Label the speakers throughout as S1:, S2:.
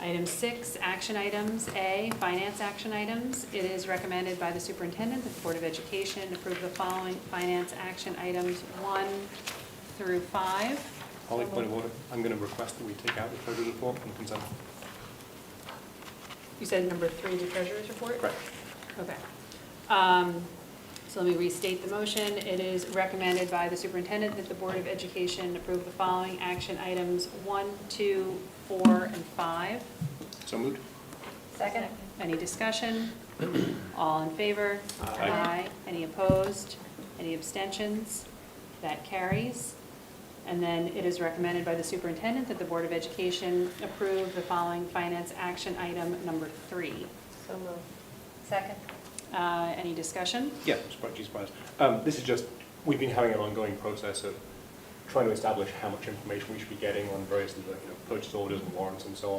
S1: Item six, action items. A, finance action items. It is recommended by the superintendent that the Board of Education approve the following finance action items, one through five.
S2: Holly, point of order, I'm going to request that we take out the treasurer's report from consent.
S1: You said number three, the treasurer's report?
S2: Correct.
S1: Okay. Um, So let me restate the motion. It is recommended by the superintendent that the Board of Education approve the following action items, one, two, four, and five.
S2: So moved?
S3: Second?
S1: Any discussion? All in favor?
S2: Aye.
S1: Any opposed? Any abstentions? That carries. And then it is recommended by the superintendent that the Board of Education approve the following finance action item number three.
S3: So moved. Second?
S1: Uh, Any discussion?
S2: Yeah, surprise, surprise. Um, This is just, we've been having an ongoing process of trying to establish how much information we should be getting on various, you know, purchase orders and warrants and so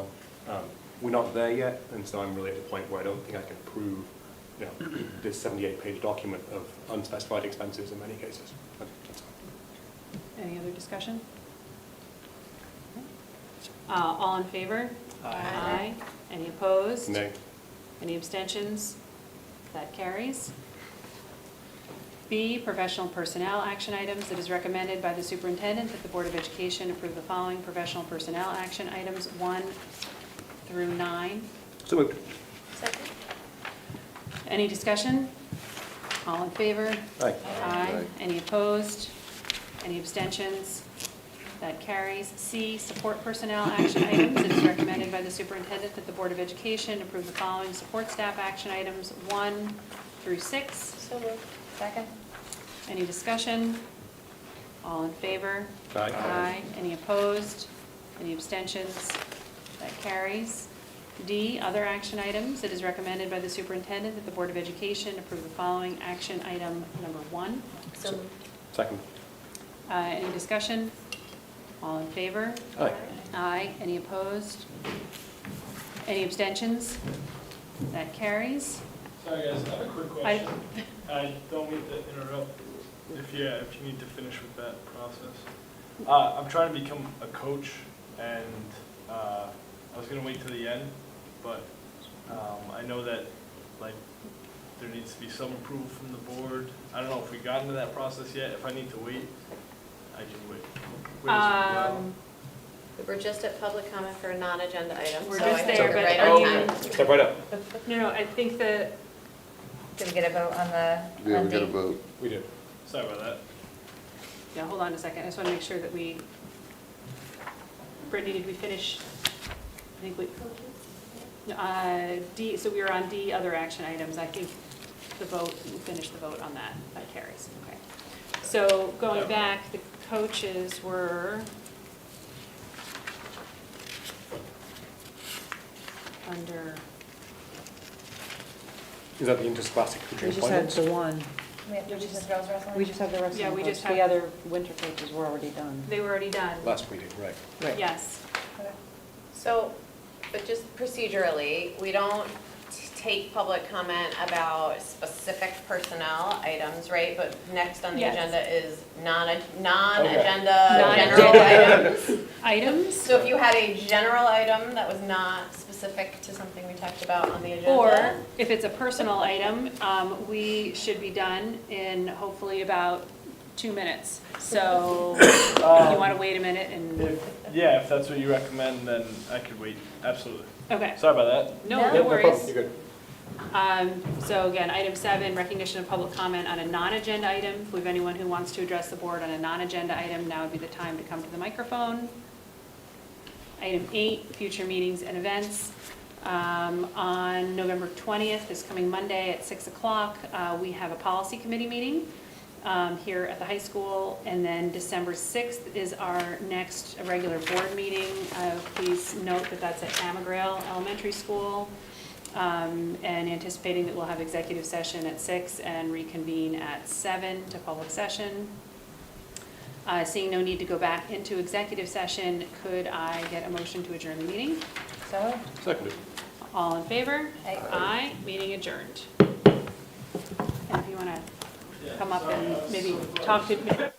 S2: on. Um, We're not there yet, and so I'm really at the point where I don't think I can prove, you know, this 78-page document of unspecified expenses in many cases. That's all.
S1: Any other discussion? Uh, All in favor?
S3: Aye.
S1: Any opposed?
S2: Nay.
S1: Any abstentions? That carries. B, professional personnel action items. It is recommended by the superintendent that the Board of Education approve the following professional personnel action items, one through nine.
S2: So moved.
S3: Second?
S1: Any discussion? All in favor?
S2: Aye.
S1: Aye. Any opposed? Any abstentions? That carries. C, support personnel action items. It is recommended by the superintendent that the Board of Education approve the following support staff action items, one through six.
S3: So moved. Second?
S1: Any discussion? All in favor?
S2: Aye.
S1: Any opposed? Any abstentions? That carries. D, other action items. It is recommended by the superintendent that the Board of Education approve the following action item number one.
S3: So moved.
S2: Second.
S1: Uh, Any discussion? All in favor?
S2: Aye.
S1: Aye. Any opposed? Any abstentions? That carries.
S4: Sorry, guys, I have a quick
S1: I-
S4: question. I don't mean to interrupt, if you, if you need to finish with that process. Uh, I'm trying to become a coach, and, uh, I was gonna wait till the end, but, um, I know that, like, there needs to be some approval from the board. I don't know if we got into that process yet, if I need to wait, I can wait. Wait as well.
S1: Um,
S5: We're just at public comment for a non-agenda item.
S1: We're
S5: so I
S1: just
S5: think
S1: there,
S5: we're
S1: but
S5: right
S1: are
S5: on
S1: you-
S5: time.
S2: Step right up.
S1: No, no, I think that
S3: Did we get a vote on the?
S6: Yeah,
S3: on
S6: we got a
S3: the-
S6: vote.
S2: We did.
S4: Sorry about that.
S1: Yeah, hold on a second, I just want to make sure that we, Brittany, did we finish? I think we, Uh, D, so we were on D, other action items, I think the vote, we finished the vote on that, that carries, okay. So going back, the coaches were under,
S2: Is that the interscholastic
S7: We
S2: tutoring
S7: just had
S2: appointments?
S7: the one,
S3: We have to do this girls wrestling?
S7: we just had the rest
S1: Yeah,
S7: of
S1: we
S7: the
S1: just
S7: coaches,
S1: had-
S7: the other winter coaches were already done.
S1: they were already done.
S2: Last meeting, right.
S7: Right.
S1: Yes,
S3: Okay.
S5: So, but just procedurally, we don't t- take public comment about specific personnel items, right? But next on the
S1: Yes.
S5: agenda is non, non-agenda,
S1: Okay.
S5: general
S1: Non-agenda.
S5: items.
S1: items,
S5: So if you had a general item that was not specific to something we talked about on the agenda.
S1: or if it's a personal item, um, we should be done in hopefully about two minutes. So you want to wait a minute and,
S4: If, yeah, if that's what you recommend, then I could wait, absolutely.
S1: okay,
S4: Sorry about that.
S1: no,
S2: Yeah,
S1: no
S2: no problem,
S1: worries.
S2: You're good.
S1: Um, So again, item seven, recognition of public comment on a non-agenda item. If we have anyone who wants to address the board on a non-agenda item, now would be the time to come to the microphone. Item eight, future meetings and events. Um, On November 20th, this coming Monday at 6 o'clock, uh, we have a policy committee meeting um, here at the high school. And then December 6th is our next regular board meeting. Uh, Please note that that's at Amagrail Elementary School. Um, And anticipating that we'll have executive session at 6 and reconvene at 7 to public session. Uh, Seeing no need to go back into executive session, could I get a motion to adjourn the meeting?
S3: So moved.
S2: Seconded.
S1: All in favor?
S3: Aye.
S1: Aye, meeting adjourned. And if you want to come up and maybe talk to,